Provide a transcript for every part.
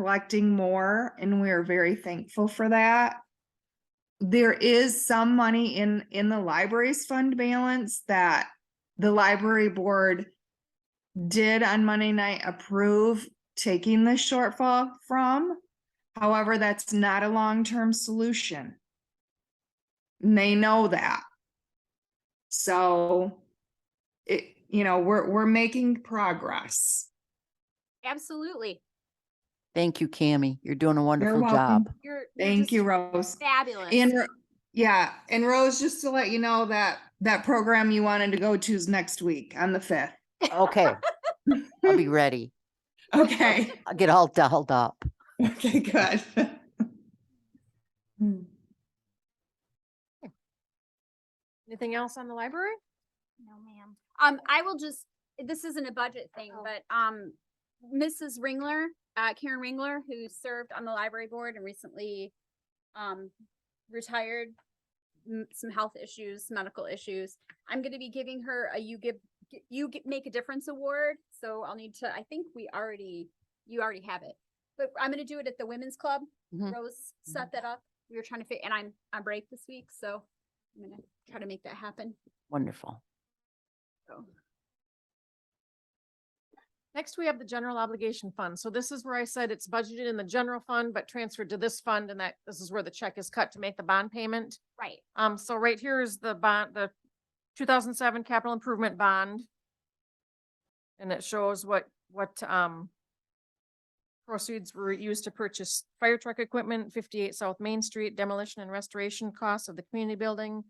collecting more and we are very thankful for that. There is some money in, in the library's fund balance that the library board did on Monday night approve taking the shortfall from. However, that's not a long-term solution. And They know that. So it, you know, we're, we're making progress. Absolutely. Thank you, Cammy. You're doing a You're wonderful welcome. job. You're. you're Thank just you, Rose. Fabulous. And Ro- yeah, and Rose, just to let you know that that program you wanted to go to is next week on the fifth. Okay. I'll be ready. Oh, Okay, I'll get all dolled up. okay, good. Hmm. Anything else on the library? No, ma'am. Um, I will just, this isn't a budget thing, Oh. but, um, Mrs. Ringler, uh, Karen Ringler, who served on the library board and recently, um, retired, m- some health issues, medical issues. I'm gonna be giving her a You Give, G- You Gi- Make a Difference Award, so I'll need to, I think we already, you already have it. But I'm gonna do it at the Women's Club. Mhm. Rose set that up. We were trying to fit, and I'm on break this week, so I'm gonna try to make that happen. Wonderful. So. Next, we have the general obligation fund. So this is where I said it's budgeted in the general fund, but transferred to this fund and that this is where the check is cut to make the bond payment. Right. Um, so right here is the bond, the two thousand seven capital improvement bond. And it shows what, what, um, proceeds were used to purchase fire truck equipment, fifty-eight South Main Street demolition and restoration costs of the community building,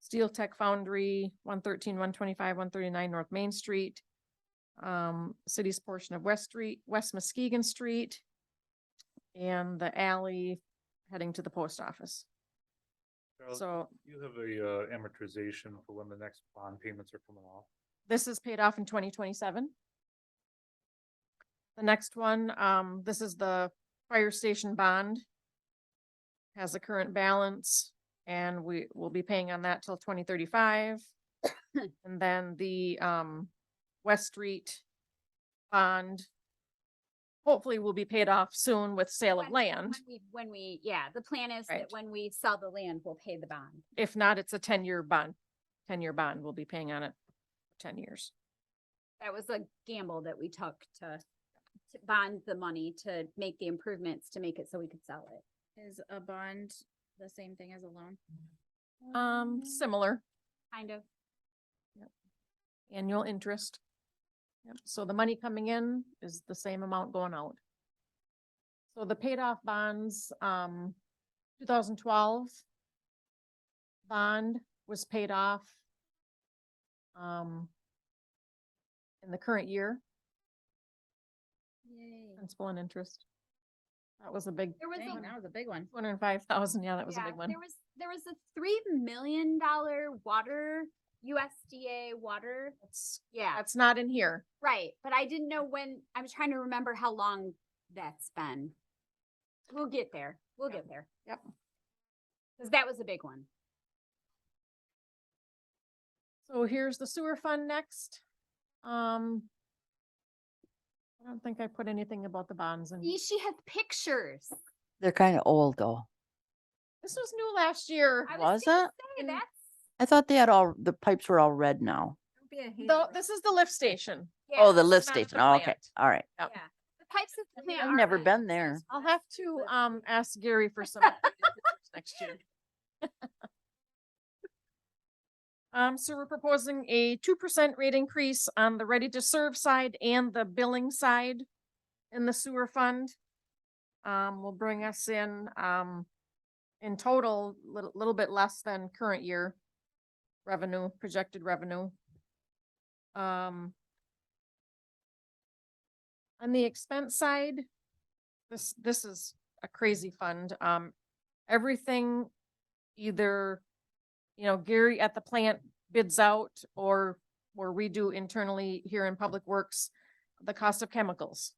Steel Tech Foundry, one thirteen, one twenty-five, one thirty-nine North Main Street, um, city's portion of West Street, West Muskegon Street, and the alley heading to the post office. Charles, So You have a uh, amortization for when the next bond payments are coming off. This is paid off in twenty twenty-seven. The next one, um, this is the fire station bond. Has a current balance and we will be paying on that till twenty thirty-five. And then the, um, West Street bond. Hopefully will be paid off soon with sale of When- land. When we- when we, yeah, the plan is that Right. when we sell the land, we'll pay the bond. If not, it's a ten-year bond. Ten-year bond. We'll be paying on it ten years. That was a gamble that we took to, to bond the money to make the improvements, to make it so we could sell it. Is a bond the same thing as a loan? Um, similar. Kind of. annual interest. Yep, so the money coming in is the same amount going out. So the paid off bonds, um, two thousand twelve bond was paid off um, in the current year, principal and interest. That was a big, There was a, Dang, that was a big one. two hundred and five thousand, yeah, that was a yeah, big one. there was, there was a three million dollar water, USDA water. That's- Yeah, That's not in here. right. But I didn't know when, I'm trying to remember how long that's been. We'll get there. We'll Yep. get there. Yep. Cause that was a big one. So here's the sewer fund next. Um, I don't think I put anything about the bonds in. See, She has pictures. They're kind of old though. This was new last year. I Was gonna it? say, And- that's- I thought they had all, the pipes were all red now. Though, this is the lift station. Oh, the yeah, lift not at the station. Oh, Okay. plant. All right. Yep. yeah. The pipes of the plant I've are never red. been there. I'll have to, um, ask Gary for some next year. Um, so we're proposing a two percent rate increase on the ready to serve side and the billing side in the sewer fund. Um, will bring us in, um, in total, little, little bit less than current year revenue, projected revenue. Um, on the expense side, this, this is a crazy fund. Um, everything either, you know, Gary at the plant bids out or, or we do internally here in Public Works, the cost of chemicals.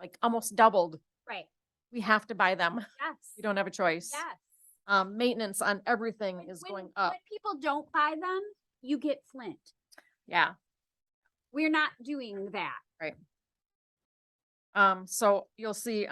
Like almost doubled. Right, We have to buy them. yes. We don't have a choice. Yes. Um, maintenance on everything When- is when- going up. When people don't buy them, you get Flint. Yeah. We're not doing that. Right. Um, so you'll see